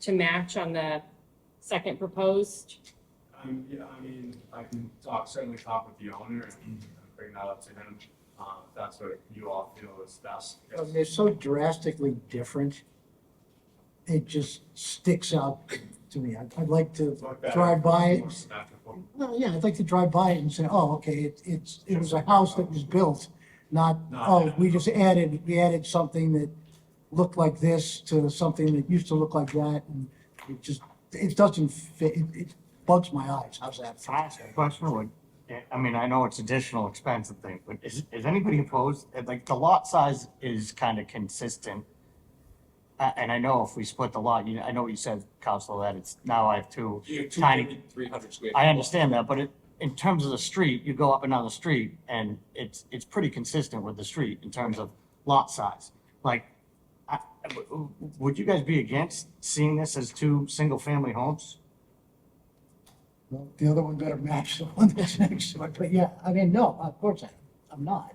to match on the second proposed? Um, yeah, I mean, I can talk, certainly talk with the owner and bring that up to him. Uh, if that's what you all feel is best. I guess. Uh, They're so drastically different. It just sticks out to me. I'd, I'd like to, Look better, drive by it. more symmetrical. well, yeah, I'd like to drive by it and say, oh, okay, it, it's, it was a house that was built, not, Not oh, that. we just added, we added something that looked like this to something that used to look like that, and it just, it doesn't fit, it, it bugs my eyes. How's that? Can I ask a question? Like, I- I mean, I know it's additional expense and thing, but is, is anybody opposed? And, Like, the lot size is kind of consistent. Uh, and I know if we split the lot, you, I know what you said, Counselor, that it's, now I have two You have two tiny. hundred, three hundred square. I feet. understand that, but it, in terms of the street, you go up and down the street and it's, it's pretty consistent with the street in terms of lot size. Like, I, I- w- w- would you guys be against seeing this as two single-family homes? Well, The other one better match the one that's next to it, but yeah, I mean, no, of course I, I'm not.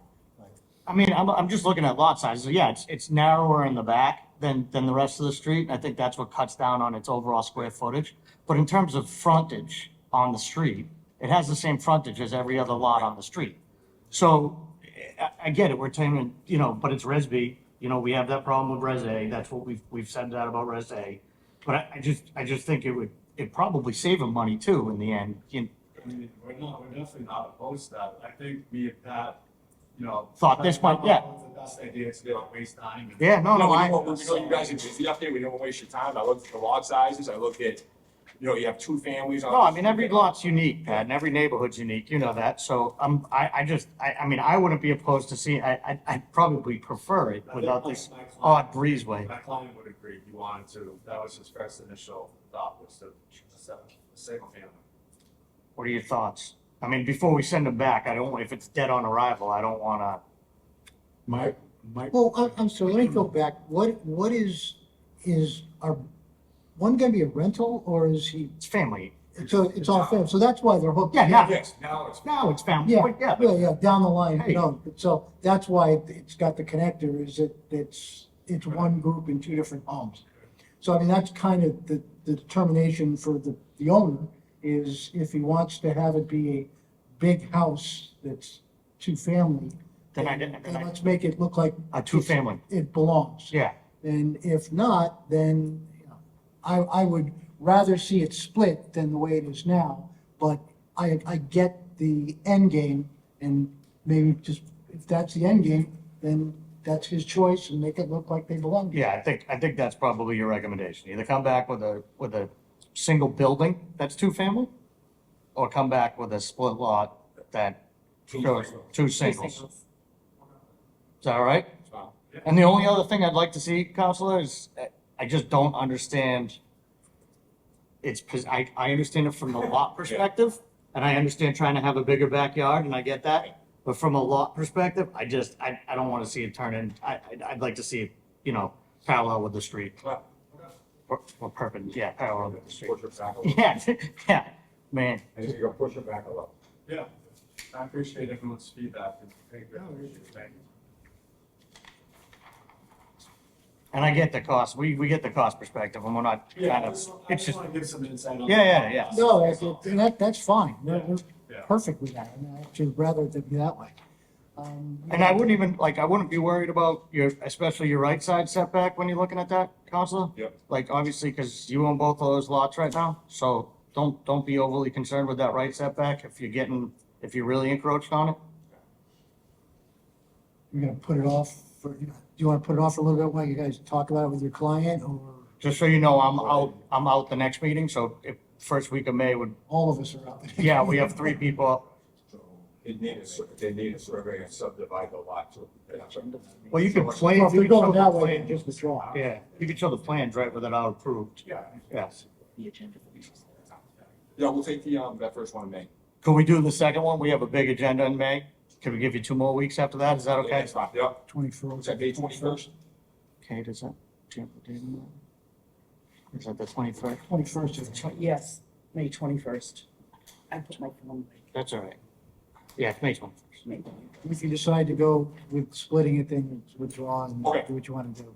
I mean, I'm, I'm just looking at lot sizes. Yeah, it's, it's narrower in the back than, than the rest of the street. And I think that's what cuts down on its overall square footage. But in terms of frontage on the street, it has the same frontage as every other lot on the street. So I, I get it. We're taming, you know, but it's Resby. You know, we have that problem with Res A. That's what we've, we've said that about Res A. But I, I just, I just think it would, it'd probably save them money too in the end. You I mean, we're not, we're definitely not opposed to that. I think me and Pat, you know. Thought this might- yeah. It's The best idea to not waste time. and- Yeah, no, No, no, we I. don't want- we know you guys are busy up there, we don't want to waste your time, I looked at the lot sizes, I looked at, you know, you have two families on. No, I mean, every lot's unique, Pat, and every neighborhood's unique, you know that, so, um, I, I just, I, I mean, I wouldn't be opposed to see, I, I, I'd probably prefer it I think without my- this my client- odd breezeway. My client would agree, he wanted to, that was his first initial thought was to, sell a single family. What are your thoughts? I mean, before we send them back, I don't, if it's dead on arrival, I don't wanna, My, my, Well, I'm, I'm sorry, let me go back. What, what is, is, are, one gonna be a rental or is he, it's family. so it's all fair, so that's why they're hooked. Yeah, yeah. Yes, now it's. No, it's family, Yeah, but yeah, yeah, but yeah, down the line, Hey. no, but so that's why it- it's got the connector is it, it's, it's one group in two different homes. So I mean, that's kind of the, the determination for the, the owner is if he wants to have it be a big house that's two-family. Then I didn't- then I- let's make it look like a two-family, it belongs. yeah. And if not, then, you know, I, I would rather see it split than the way it is now. But I, I get the end game and maybe just, if that's the end game, then that's his choice and make it look like they belong. Yeah, I think, I think that's probably your recommendation. Either come back with a, with a single building that's two-family, or come back with a split lot that Two shows singles. two Two singles. Is that all right? Wow. And the only other thing I'd like to see, Counselor, is uh, I just don't understand. It's, pos- I, I understand it from the lot perspective, and I understand trying to have a bigger backyard, and I get that. But from a lot perspective, I just, I, I don't want to see it turn in, I, I'd- I'd like to see it, you know, parallel with the street. Wow. Or, or perpendicular, yeah, parallel with the street. Push it back a little, Yeah, yeah, man. I just gotta push it back a little. Yeah, I appreciate everyone's feedback. and thank you. Thank you. And I get the cost, we, we get the cost perspective, and we're not kind Yeah, of, I it's just just, want to give some insight on. Yeah, yeah, yeah. No, that's, and that, that's fine. We're- we're Yeah. Perfect with that. And I actually rather it be that way. Um, And I wouldn't even, like, I wouldn't be worried about your, especially your right side setback when you're looking at that, Counselor? Yep. Like, obviously, because you own both of those lots right now, so don't, don't be overly concerned with that right setback if you're getting, if you're really encroached on it. You're gonna put it off for, do you wanna put it off for a little bit while you guys talk about it with your client or Just so you know, I'm out, I'm out the next meeting, so if, first week of May would, all of us are out? yeah, we have three people. They need a, sur- they need a survey and subdivide the lot too. Well, you can play, Well, you if they're can show going the that way, then plan. just withdraw. Yeah, you can show the plans right without approved, Yeah. yes. Yeah, we'll take the, um, that first one in May. Could we do the second one? We have a big agenda in May. Could we give you two more weeks after that? Is that okay? That's fine. Yep, Twenty-four. was that May twenty-first? Okay, does that, do you have the date on that? Is that the twenty-first? Twenty-first is Tw- Yes, May twenty-first. I put my phone, That's all right. Yeah, it's May twenty-first. May If you decide to go with splitting it, then withdraw and Okay. do what you want to do.